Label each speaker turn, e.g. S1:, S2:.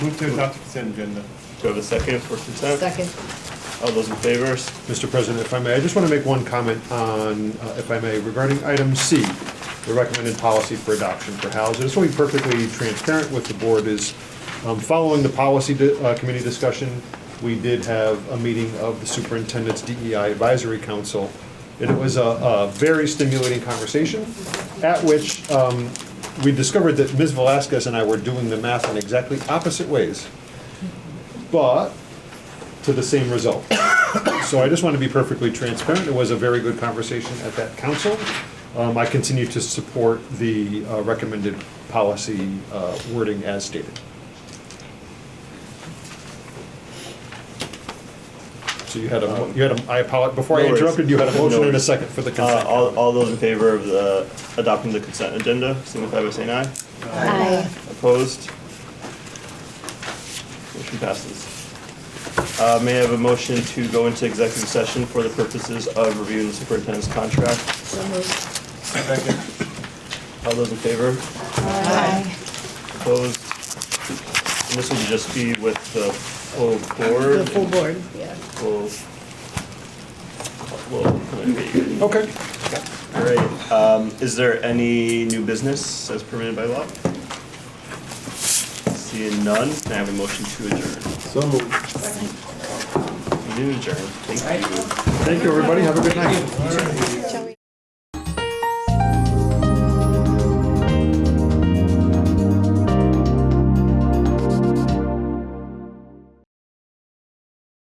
S1: Move to adopt the consent agenda.
S2: Do I have a second for consent?
S3: Second.
S2: All those in favor?
S4: Mr. President, if I may, I just want to make one comment on, uh, if I may, regarding item C, the recommended policy for adoption for housing. Just want to be perfectly transparent with the board is, um, following the policy di- uh, committee discussion, we did have a meeting of the superintendent's DEI advisory council, and it was a- a very stimulating conversation, at which um, we discovered that Ms. Velazquez and I were doing the math in exactly opposite ways, but to the same result. So I just want to be perfectly transparent. It was a very good conversation at that council. Um, I continue to support the uh, recommended policy uh, wording as stated. So you had a, mo- you had a, I apologize, before I
S2: Uh, No worries.
S4: interrupted, you had a
S2: No
S4: motion and a
S2: worries.
S4: second for the
S2: Uh,
S4: consent.
S2: all, all those in favor of the, adopting the consent agenda, signify by saying aye.
S3: Aye.
S2: Opposed? Motion passes. Uh, may I have a motion to go into executive session for the purposes of reviewing the superintendent's contract?
S3: So moved.
S1: Second.
S2: All those in favor?
S3: Aye.
S2: Opposed? And this will just be with the full board?
S3: The full board, yeah.
S2: We'll, we'll,
S4: Okay.
S2: all right, um, is there any new business as permitted by law? Seeing none, can I have a motion to adjourn?
S1: So moved.
S2: We do adjourn, thank you.
S4: Thank you, everybody. Have a good night.